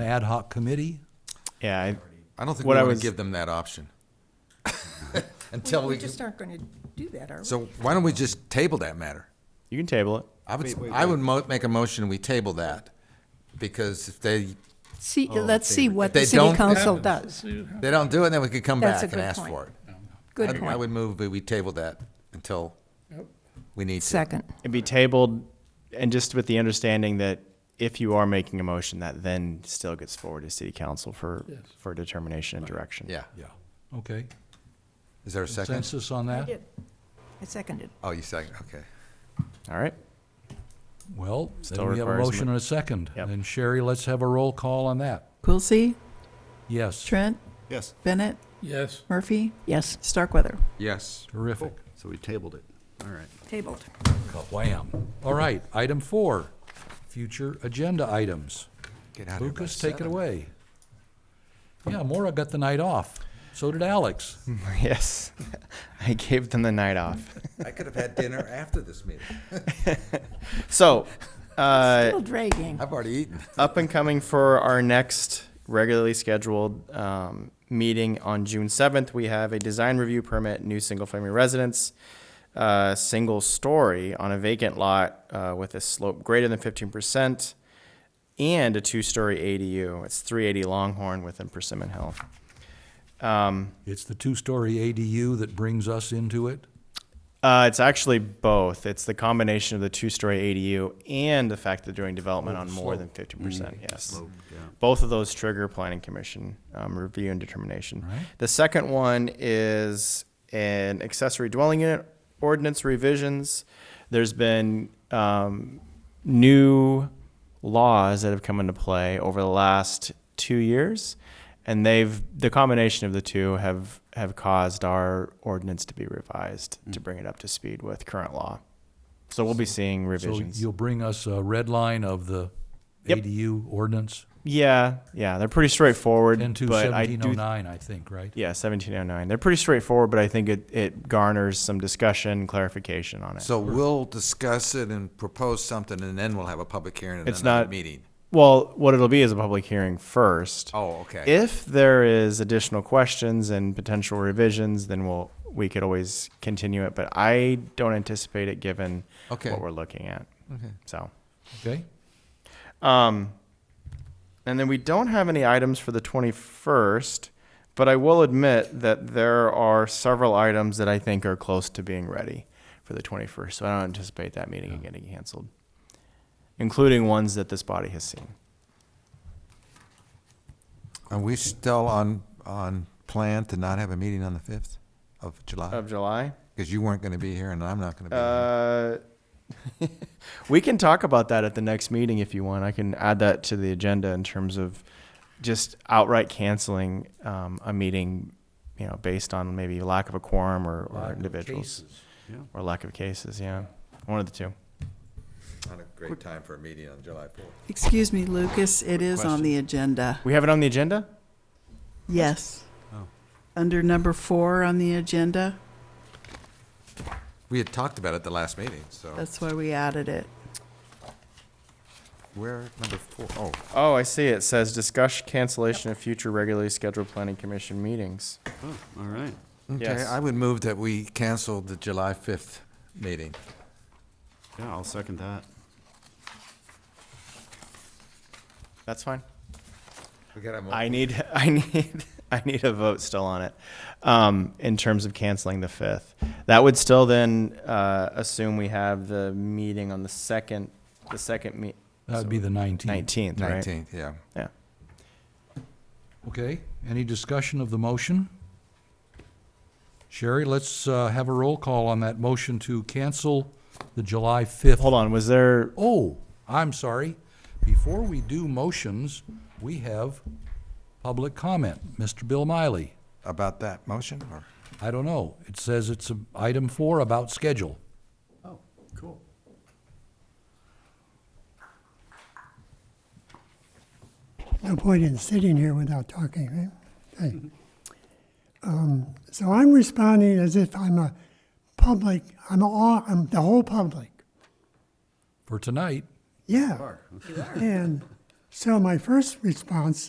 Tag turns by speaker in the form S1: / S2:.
S1: an ad hoc committee?
S2: Yeah, I-
S3: I don't think
S2: What
S3: we
S2: I
S3: want
S2: was-
S3: to give them that option. Until
S4: We
S3: we,
S4: just aren't going to do that, are we?
S3: so why don't we just table that matter?
S2: you can table it.
S3: I would, I would mo- make a motion, we table that, because if they,
S4: See, let's see what
S3: oh, they
S4: the city
S3: don't-
S4: council does.
S3: they don't do it, then we could come
S4: That's
S3: back and
S4: a good
S3: ask
S4: point.
S3: for it.
S4: Good
S3: I'd- I
S4: point.
S3: would move, that we table that until we need to.
S4: Second.
S2: It'd be tabled, and just with the understanding that if you are making a motion, that then still gets forward to city council for, for determination and direction.
S3: Yeah.
S1: Yeah. Okay.
S3: Is there a second?
S1: Consensus on that?
S4: I seconded.
S3: Oh, you second, okay.
S2: All right.
S1: Well,
S2: Still
S1: then we have a
S2: requires
S1: motion
S2: ma-
S1: and a second.
S2: Yep.
S1: And Sherry, let's have a roll call on that.
S5: Quilisi,
S1: Yes,
S5: Trent,
S6: Yes.
S5: Bennett,
S7: Yes.
S5: Murphy,
S4: Yes,
S5: Starkweather.
S3: Yes.
S1: terrific.
S6: So we tabled it. All right.
S4: tabled.
S1: Wham. All right, item four, future agenda items.
S3: Get out of here by
S1: Lucas, take it
S3: seven.
S1: away. Yeah, Mora got the night off. So did Alex.
S2: Yes. I gave them the night off.
S3: I could have had dinner after this meeting.
S2: So, uh,
S4: Still dragging.
S3: I've already eaten.
S2: up and coming for our next regularly scheduled um, meeting on June seventh. We have a design review permit, new single-family residence, uh, single story on a vacant lot uh, with a slope greater than fifteen percent, and a two-story ADU. It's three eighty Longhorn within Persimmon Hill. Um,
S1: It's the two-story ADU that brings us into it.
S2: uh, it's actually both. It's the combination of the two-story ADU and the fact that they're doing development on more than fifty percent. Yes. Both of those trigger planning commission um, review and determination. The second one is an accessory dwelling unit ordinance revisions. There's been um, new laws that have come into play over the last two years, and they've the combination of the two have have caused our ordinance to be revised to bring it up to speed with current law. So we'll be seeing
S1: So
S2: revisions.
S1: you'll bring us a red line of the
S2: Yep.
S1: ADU ordinance,
S2: Yeah, yeah, they're pretty straightforward.
S1: and to
S2: but I
S1: seventeen oh
S2: do,
S1: nine, I think, right?
S2: yeah, seventeen oh nine. They're pretty straightforward, but I think it, it garners some discussion, clarification on it.
S3: So we'll discuss it and propose something, and then we'll have a public hearing and
S2: It's
S3: another
S2: not-
S3: meeting.
S2: well, what it'll be is a public hearing first.
S3: Oh, okay.
S2: If there is additional questions and potential revisions, then we'll we could always continue it. But I don't anticipate it given
S3: Okay.
S2: what we're looking at. Okay. So.
S1: Okay?
S2: Um, and then we don't have any items for the 21st, but I will admit that there are several items that I think are close to being ready for the 21st. So I don't anticipate that meeting getting canceled, including ones that this body has seen.
S3: Are we still on, on plan to not have a meeting on the fifth of July?
S2: Of July?
S3: Because you weren't gonna be here and I'm not gonna be here.
S2: Um, Uh, we can talk about that at the next meeting if you want. I can add that to the agenda in terms of just outright canceling um, a meeting, you know, based on maybe lack of a quorum or,
S1: Uh,
S2: or individuals or lack of cases. Yeah, one of the two.
S3: Not a great time for a meeting on July fourth.
S5: Excuse me, Lucas, it is on the agenda.
S2: We have it on the agenda.
S5: Yes. Under number four on the agenda,
S3: We had talked about it the last meeting, so
S5: that's why we added it.
S3: we're number four. Oh,
S2: Oh, I see. It says discuss cancellation of future regularly scheduled planning commission meetings.
S6: Oh, all right.
S3: okay,
S2: Yes.
S3: I would move that we cancel the July fifth meeting.
S6: Yeah, I'll second that.
S2: That's fine.
S3: We got a mo-
S2: I need, I need, I need a vote still on it, um, in terms of canceling the fifth. That would still then, uh, assume we have the meeting on the second, the second me-
S1: That would be the nineteenth.
S2: nineteenth, right?
S3: Nineteenth, yeah.
S2: Yeah.
S1: Okay, any discussion of the motion? Sherry, let's uh, have a roll call on that motion to cancel the July 5th.
S2: Hold on, was there,
S1: Oh, I'm sorry. Before we do motions, we have public comment. Mr. Bill Miley,
S3: About that motion or?
S1: I don't know. It says it's um, item four about schedule.
S6: Oh, cool.
S8: no point in sitting here without talking, right? Okay. Um, so I'm responding as if I'm a public, I'm all, I'm the whole public.
S1: For tonight,
S8: Yeah. And So my first response